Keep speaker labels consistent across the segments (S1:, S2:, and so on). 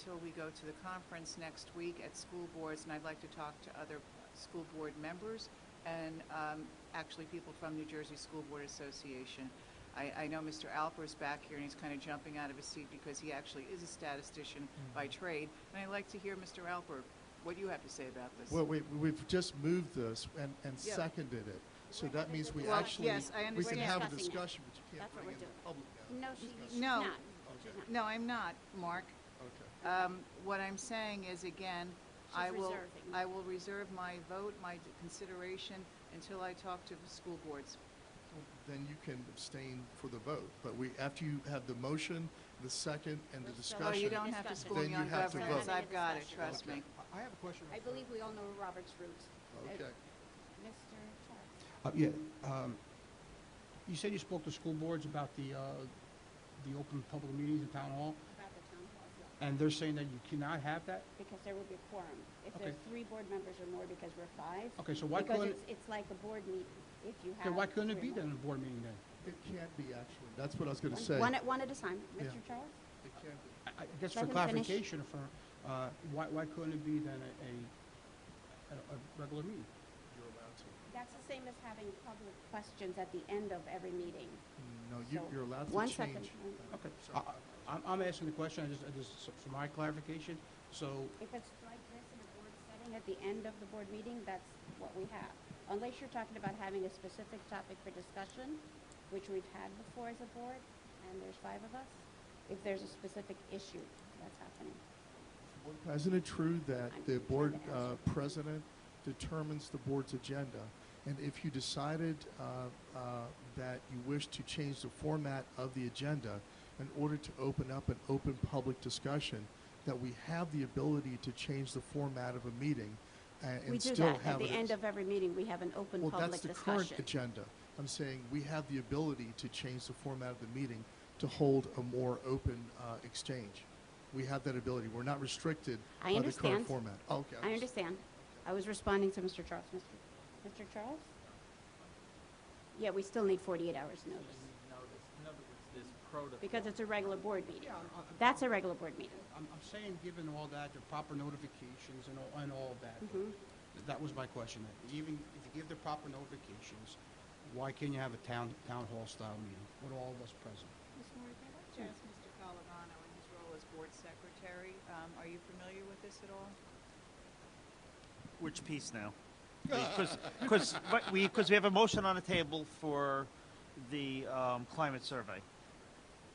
S1: until we go to the conference next week at school boards, and I'd like to talk to other school board members and um, actually people from New Jersey School Board Association. I, I know Mr. Alper's back here, and he's kind of jumping out of his seat because he actually is a statistician by trade. And I'd like to hear, Mr. Alper, what you have to say about this.
S2: Well, we, we've just moved this and, and
S1: Yeah.
S2: seconded it. So that means we
S1: Well,
S2: actually,
S1: yes, I
S2: we can
S1: understand.
S2: have a
S3: Discussing it.
S2: discussion, but you can't
S3: That's what
S2: bring it
S3: we're
S2: to
S3: doing.
S2: public now.
S3: No, she-
S2: Discuss-
S3: she's
S1: No.
S3: not.
S2: Okay,
S1: No, I'm not, Mark.
S2: okay.
S1: Um, What I'm saying is, again, I will,
S3: reserving.
S1: I will reserve my vote, my d- consideration, until I talk to the school boards.
S2: Then you can abstain for the vote, but we, after you have the motion, the second, and the
S3: Well, so-
S1: Well,
S2: discussion.
S1: you don't have to
S3: Discussion.
S1: school me
S2: Then you
S1: on
S2: have to
S1: governance,
S2: vote.
S1: I've got it,
S3: Discussion.
S1: trust
S2: Okay.
S1: me.
S4: I I have a question.
S3: I believe we all know Robert's roots. Uh,
S2: Okay.
S3: Mr. Torres.
S4: Uh, Yeah, um, you said you spoke to school boards about the, uh, the open public meetings in town hall,
S3: About the town hall, yeah,
S4: and they're saying that you cannot have that?
S3: because there will be a quorum. If there's
S4: Okay.
S3: three board members or more, because we're five.
S4: Okay, so why
S3: Because
S4: couldn't-
S3: it's, it's like a board meeting, if you have.
S4: Okay, why couldn't it
S3: three or
S4: be then
S3: more.
S4: in a board meeting then?
S2: It can't be actually, that's what I was gonna
S3: One-
S2: say.
S3: One at, one at a time.
S2: Yeah.
S3: Mr. Charles?
S2: It can't be.
S4: I- I guess
S3: Let him
S4: for
S3: finish.
S4: clarification, or for, uh, why, why couldn't it be then a, a, a- a regular meeting?
S2: You're allowed to.
S3: That's the same as having public questions at the end of every meeting.
S2: No, you,
S3: So,
S2: you're allowed to change.
S3: one second.
S2: uh,
S4: Okay, I,
S2: sorry.
S4: I- I'm, I'm asking the question, I just, I just, so for my clarification, so,
S3: If it's like this in a board setting at the end of the board meeting, that's what we have. Unless you're talking about having a specific topic for discussion, which we've had before as a board, and there's five of us, if there's a specific issue that's happening.
S2: Isn't it true that
S3: I'm
S2: the
S3: trying
S2: board
S3: to
S2: uh,
S3: answer.
S2: president determines the board's agenda? And if you decided uh, uh, that you wish to change the format of the agenda in order to open up an open public discussion, that we have the ability to change the format of a meeting uh,
S3: We
S2: and
S3: do
S2: still have
S3: that.
S2: it.
S3: At the
S2: as-
S3: end of every meeting, we have an open
S2: Well, that's
S3: public
S2: the current
S3: discussion.
S2: agenda. I'm saying we have the ability to change the format of the meeting to hold a more open uh, exchange. We have that ability. We're not restricted
S3: I
S2: by the current
S3: understand.
S2: format. Oh, Okay.
S3: I understand. I was responding to Mr. Charles. Mr. Mr. Charles? Yeah, we still need 48 hours notice,
S5: notice, in other words, this protocol.
S3: because it's a regular board meeting.
S4: Yeah, I'm- I'm-
S3: That's a regular board meeting.
S4: I'm, I'm saying, given all that, the proper notifications and all, and all of that. th- That was my question. Even if you give the proper notifications, why can't you have a town, town hall style meeting with all of us present?
S1: Mr. Calavano in his role as board secretary, um, are you familiar with this at all?
S6: Which piece now? Because we, because we have a motion on the table for the um, climate survey.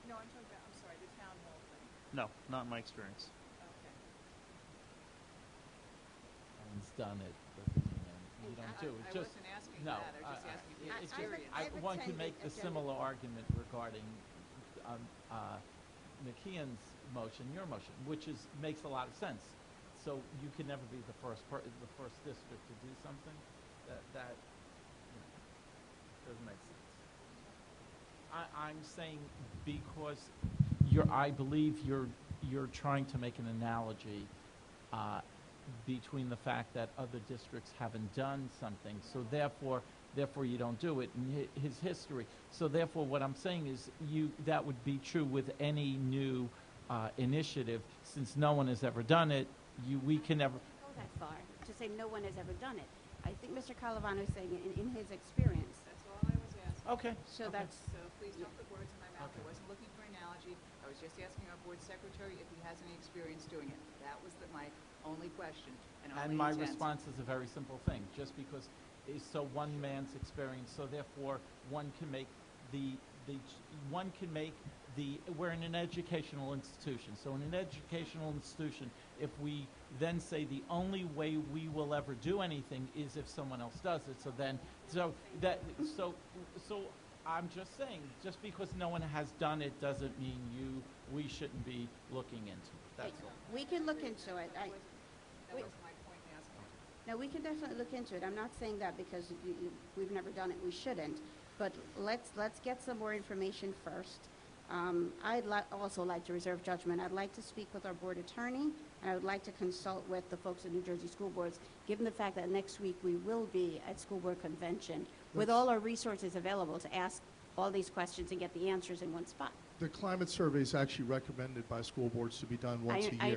S1: No, I'm talking about, I'm sorry, the town hall thing.
S6: No, not in my experience.
S1: Okay.
S5: Everyone's done it, but you know, you don't
S1: I-
S5: do
S1: I
S5: it. Just-
S1: wasn't asking
S5: no,
S1: that. I was just
S5: I- I-
S1: asking
S5: it-
S1: your
S5: it just-
S1: experience.
S5: I-
S3: I've
S5: One can
S3: attended
S5: make the
S3: agenda-
S5: similar argument regarding um, uh, McKeon's motion, your motion, which is, makes a lot of sense. So you can never be the first, per- the first district to do something that, that, you know, doesn't make sense. I, I'm saying because you're, I believe you're, you're trying to make an analogy uh, between the fact that other districts haven't done something, so therefore, therefore you don't do it, and hi- his history. So therefore, what I'm saying is you, that would be true with any new uh, initiative, since no one has ever done it, you, we can never,
S3: go that far to say no one has ever done it. I think Mr. Calavano is saying in, in his experience.
S1: That's all I was asking.
S6: okay.
S3: So
S6: okay.
S3: that's,
S1: So please don't put words in my mouth. I
S6: Okay.
S1: wasn't looking for an analogy. I was just asking our board secretary if he has any experience doing it. That was the- my only question and only
S5: And my
S1: intent.
S5: response is a very simple thing, just because it's so one man's experience, so therefore, one can make the, the, one can make the, we're in an educational institution, so in an educational institution, if we then say the only way we will ever do anything is if someone else does it, so then, so that, so, so I'm just saying, just because no one has done it doesn't mean you, we shouldn't be looking into it, that's all.
S3: we can look into it. I,
S1: That
S3: Wait.
S1: was my point in asking.
S3: now, we can definitely look into it. I'm not saying that because you, you, we've never done it, we shouldn't. But let's, let's get some more information first. Um, I'd li- also like to reserve judgment. I'd like to speak with our board attorney, and I would like to consult with the folks at New Jersey School Boards, given the fact that next week we will be at School Board Convention with all our resources available to ask all these questions and get the answers in one spot.
S2: The climate survey is actually recommended by school boards to be done once a year.
S3: I